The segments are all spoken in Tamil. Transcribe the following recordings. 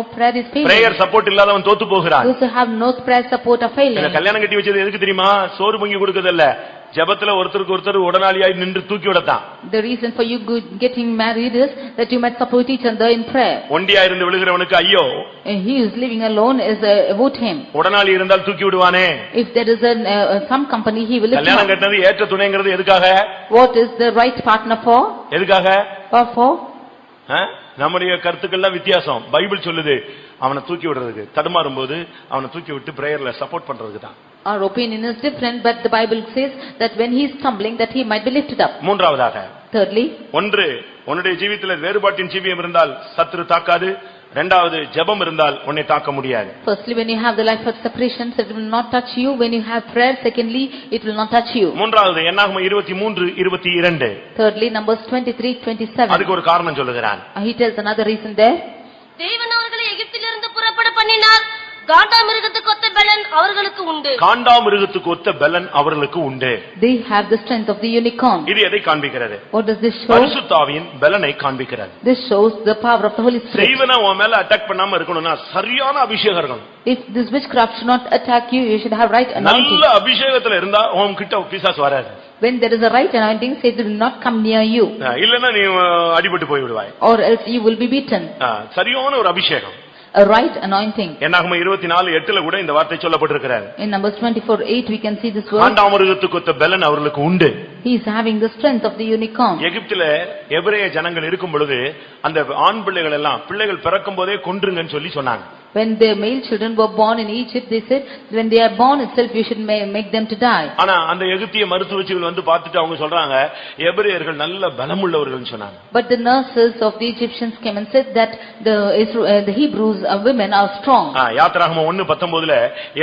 No prayer is failure. Prayer support இல்லாதவன் தோத்து போகிறான் Those who have no prayer support are இந்த failing. கல்யாணம் கட்டி வச்சது எதுக்கு தெரியுமா சோறு பொங்கி கொடுக்கறதல்ல ஜெபத்துல ஒருத்தருக்கு ஒருத்தர் உடனாளியாய் நின்று தூக்கி விடத்தான் The reason for you go- getting married is that you might support each other in prayer. ஒண்டியா இருந்து விழுகிறவனுக்கு ஐயோ And he who's living alone is uh, about him. உடனாளி இருந்தால் தூக்கி விடுவானே If there is an, uh, uh, some company, he will lift கல்யாணம் him up. கட்டினது ஏற்ற துணைங்கிறது எதுக்காக What is the right partner for? எதுக்காக Or for? ஆ? நம்முடைய கருத்துக்கள்லாம் வித்தியாசம் பைபிள் சொல்லுது அவனை தூக்கி விடுறதுக்கு தடுமாறும் போது அவனை தூக்கி விட்டு பிரேயர்ல சப்போர்ட் பண்றதுக்கு தான் Our opinion is different, but the Bible says that when he is stumbling, that he might be lifted up. மூன்றாவதாக Thirdly, ஒன்று உன்னுடைய ஜீவியத்தில் வேறுபாட்டின் ஜீவியம் இருந்தால் சத்துரு தாக்காது இரண்டாவது ஜெபம் இருந்தால் உன்னை தாக்க முடியாது Firstly, when you have the life of separation, it will not touch you. When you have prayer, secondly, it will not touch you. மூன்றாவது என்னாகும் இருபத்தி மூன்று இருபத்தி இரண்டு Thirdly, Numbers 23, 27. அதுக்கு ஒரு காரணம் சொல்லுகிறான் Uh, He tells another reason there. தேவன் அவர்களை எகிப்திலிருந்து புறப்பட பண்ணினார் காண்டா மிருகத்துக்கு ஒத்த பலன் அவர்களுக்கு உண்டு காண்டாமிருகத்துக்கு ஒத்த பலன் அவர்களுக்கு உண்டு They have the strength of the unicorn. இது எதை காண்பிக்கிறது What does this show? பரிசுத்தாவியின் பலனை காண்பிக்கிறது This shows the power of the Holy Spirit. செய்வன உன் மேல அட்டாக் பண்ணாம இருக்கணும்னா சரியான அபிஷேகம் இருக்கணும் If this witchcraft should not attack you, you should have right நல்ல anointing. அபிஷேகத்துல இருந்தா உன் கிட்ட பிசாசு வராது When there is a right anointing, Satan will not come near you, அஹ் இல்லன்னா நீ அஹ், அடிபட்டு போய் விடுவாய் or else you will be beaten. அஹ் சரியான ஒரு அபிஷேகம் A right anointing. என்னாகும் இருபத்தி நாலு எட்டுல கூட இந்த வார்த்தை சொல்லப்பட்டிருக்கிறார் In Numbers 24, 8, we can see this word. காண்டாமிருகத்துக்கு ஒத்த பலன் அவர்களுக்கு உண்டு He is having the strength of the unicorn. எகிப்துல எபிரேய ஜனங்கள் இருக்கும் பொழுது அந்த ஆண் பிள்ளைகள் எல்லாம் பிள்ளைகள் பிறக்கும் போதே கொன்றுங்கன்னு சொல்லி சொன்னாங்க When the male children were born in Egypt, they said, when they are born itself, you should ma- make them to die. ஆனா அந்த எகிப்திய மருத்துவச்சிகள் வந்து பார்த்துட்டு அவங்க சொல்றாங்க எபிரேயர்கள் நல்ல பலமுள்ளவர்கள்னு சொன்னாங்க But the nurses of the Egyptians came and said that the Isra- uh, the Hebrews uh, women are strong. ஆ, யாத்திராகமம் ஒண்ணு பத்தொன்பதுல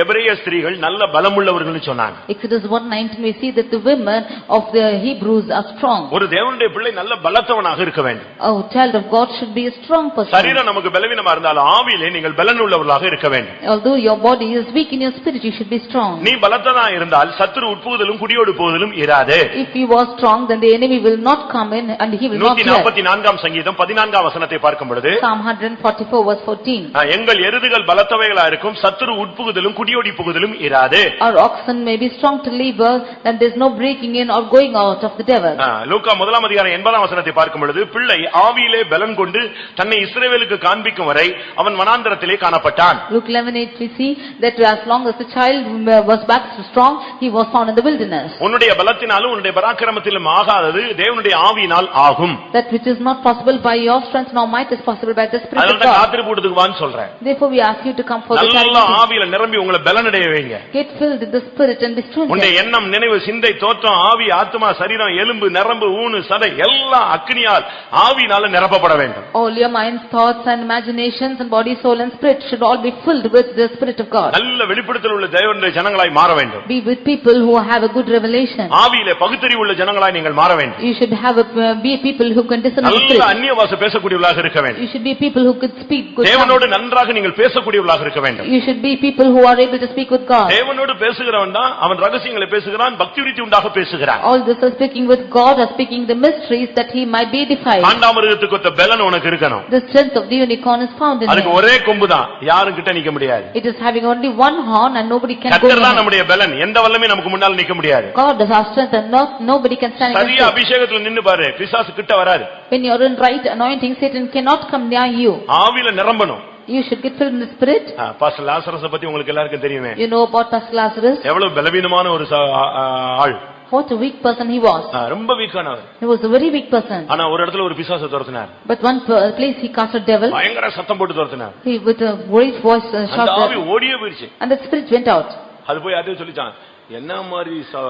எபிரேய ஸ்திரீகள் நல்ல பலமுள்ளவர்கள்னு சொன்னாங்க Exodus 1:19 we see that the women of the Hebrews are strong. ஒரு தேவனுடைய பிள்ளை நல்ல பலத்தவனாக இருக்க வேண்டும் A child of God should be a strong person. சரீரம் நமக்கு பலவீனமா இருந்தாலும் ஆவியிலே நீங்கள் பலனுள்ளவர்களாக இருக்க வேண்டும் Although your body is weak in your spirit, you should be strong. நீ பலத்தனா இருந்தால் சத்துரு உட்புகுதலும் குடியோடு போவதிலும் இராது If you are strong, then the enemy will not come in and he will not நூத்தி hear. நாற்பத்தி நான்காம் சங்கீதம் பதினான்காம் வசனத்தை பார்க்கும் பொழுது Psalm 144 verse 14. ஆ, எங்கள் எருதுகள் பலத்தவைகளா இருக்கும் சத்துரு உட்புகுதலும் குடியோடி புகுதலும் இராது Our oxen may be strong to labor, and there's no breaking in or going out of the devil. ஆ, லூக்கா முதலாம் அதிகாரம் எண்பதாம் வசனத்தை பார்க்கும் பொழுது பிள்ளை ஆவியிலே பலன் கொண்டு தன்னை இஸ்ரவேலுக்கு காண்பிக்கும் வரை அவன் வனாந்தரத்திலே காணப்பட்டான் Luke 11:8 we see that as long as the child uh, was back strong, he was found in the wilderness. உன்னுடைய பலத்தினாலும் உன்னுடைய பராக்கிரமத்திலும் ஆகாதது தேவனுடைய ஆவியினால் ஆகும் That which is not possible by your strength nor might is possible by the Spirit of அதனால God. காத்திரி போட்டுக்கு வான்னு சொல்றேன் Therefore, we ask you to come for the நல்லா charity. ஆவியில நிரம்பி உங்களை பலனடைய வைங்க Get filled with the Spirit and be உன்னுடைய strengthened. எண்ணம் நினைவு சிந்தை தோற்றம் ஆவி ஆத்மா சரீரம் எலும்பு நரம்பு ஊனு சதை எல்லாம் அக்னியால் ஆவியினால நிரப்பப்பட வேண்டும் All your minds, thoughts and imaginations and body, soul and spirit should all be filled with the Spirit of God. நல்ல வெளிப்படுத்தல் உள்ள தேவனுடைய ஜனங்களாய் மாற வேண்டும் Be with people who have a good revelation. ஆவியில பகுத்தறிவு உள்ள ஜனங்களாய் நீங்கள் மாற வேண்டும் You should have a, uh, be people who can discern the நல்ல Spirit. அந்நிய வாச பேசக்கூடியவர்களாக இருக்க வேண்டும் You should be people who could speak good தேவனோடு tongues. நன்றாக நீங்கள் பேசக்கூடியவர்களாக இருக்க வேண்டும் You should be people who are able to speak with God. தேவனோடு பேசுகிறவன் தான் அவன் ரகசியங்களை பேசுகிறான் பக்தி விருத்தி உண்டாக பேசுகிறான் All this are speaking with God or speaking the mysteries that he might be edified. காண்டாமிருகத்துக்கு ஒத்த பலன் உனக்கு இருக்கணும் The strength of the unicorn is found in அதுக்கு him. ஒரே கொம்பு தான் யாரும் கிட்ட நிக்க முடியாது It is having only one horn and nobody can go கத்தர் தான் near. நம்முடைய பலன் எந்த வல்லமே நமக்கு முன்னால் நிக்க முடியாது God is our strength and not, nobody can stand சரியா against it. அபிஷேகத்துல நின்னு பாரு பிசாசு கிட்ட வராது When you are in right anointing, Satan cannot come near you. ஆவியில நிரம்பணும் You should get filled in the spirit. Pastor லாசரஸ பத்தி உங்களுக்கு எல்லாருக்கும் தெரியுமே You know about Pastor Lazarus, எவ்வளவு பலவீனமான ஒரு ச- ஆ- ஆ- ஆள் what a weak person he was. ஆ, ரொம்ப வீக்கானவர் He was a very weak person. ஆனா ஒரு இடத்துல ஒரு பிசாசை துரத்தினார் But one per- place he cast a devil, பயங்கர சத்தம் போட்டு துரத்தினார் he with a great voice uh, அந்த shouted, ஆவி ஓடியே போயிருச்சு and the spirit went out. அது போய் அதே சொல்லிச்சான் என்ன மாதிரி ச-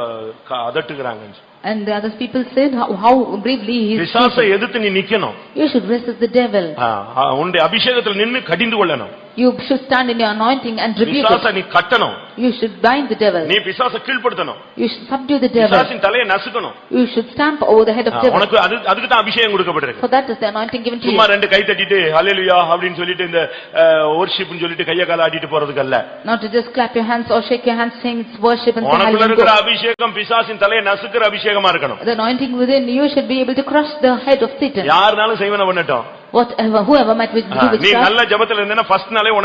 க- அதட்டுகிறாங்கன்னு And the other people said how- how bravely he is. பிசாசை எதிர்த்து நீ நிக்கணும் You should resist the devil. ஆ, ஆ, உன்னுடைய அபிஷேகத்துல நின்னு கடிந்து கொள்ளணும் You should stand in your anointing and rebuke பிசாசை it. நீ கட்டணும் You should bind the devil. நீ பிசாச கீழ்படுத்தணும் You should subdue the devil. பிசாசின் தலையை நசுக்கணும் You should stamp over the head ah, of devil. உனக்கு அது அதுக்கு தான் அபிஷேகம் கொடுக்கப்பட்டிருக்கு For that is the anointing given to சும்மா you. ரெண்டு கை தட்டிட்டு ஹalleluya அப்படின்னு சொல்லிட்டு இந்த வorshipனு சொல்லிட்டு கைய கால ஆட்டிட்டு போறதுக்கு அல்ல Not to just clap your hands or shake your hands saying it's worship and say உனக்குள்ள hallelujah. இருக்கிற go. அபிஷேகம் பிசாசின் தலையை நசுக்கிற அபிஷேகமா இருக்கணும் The anointing within you should be able to crush the head of Satan. யாருனாலும் செய்வன பண்ணட்டும் whatever, whoever might with- do with நீ God. Ah, நல்ல ஜெபத்துல இருந்தேன்னா ஃபர்ஸ்ட் நாளே உனக்கு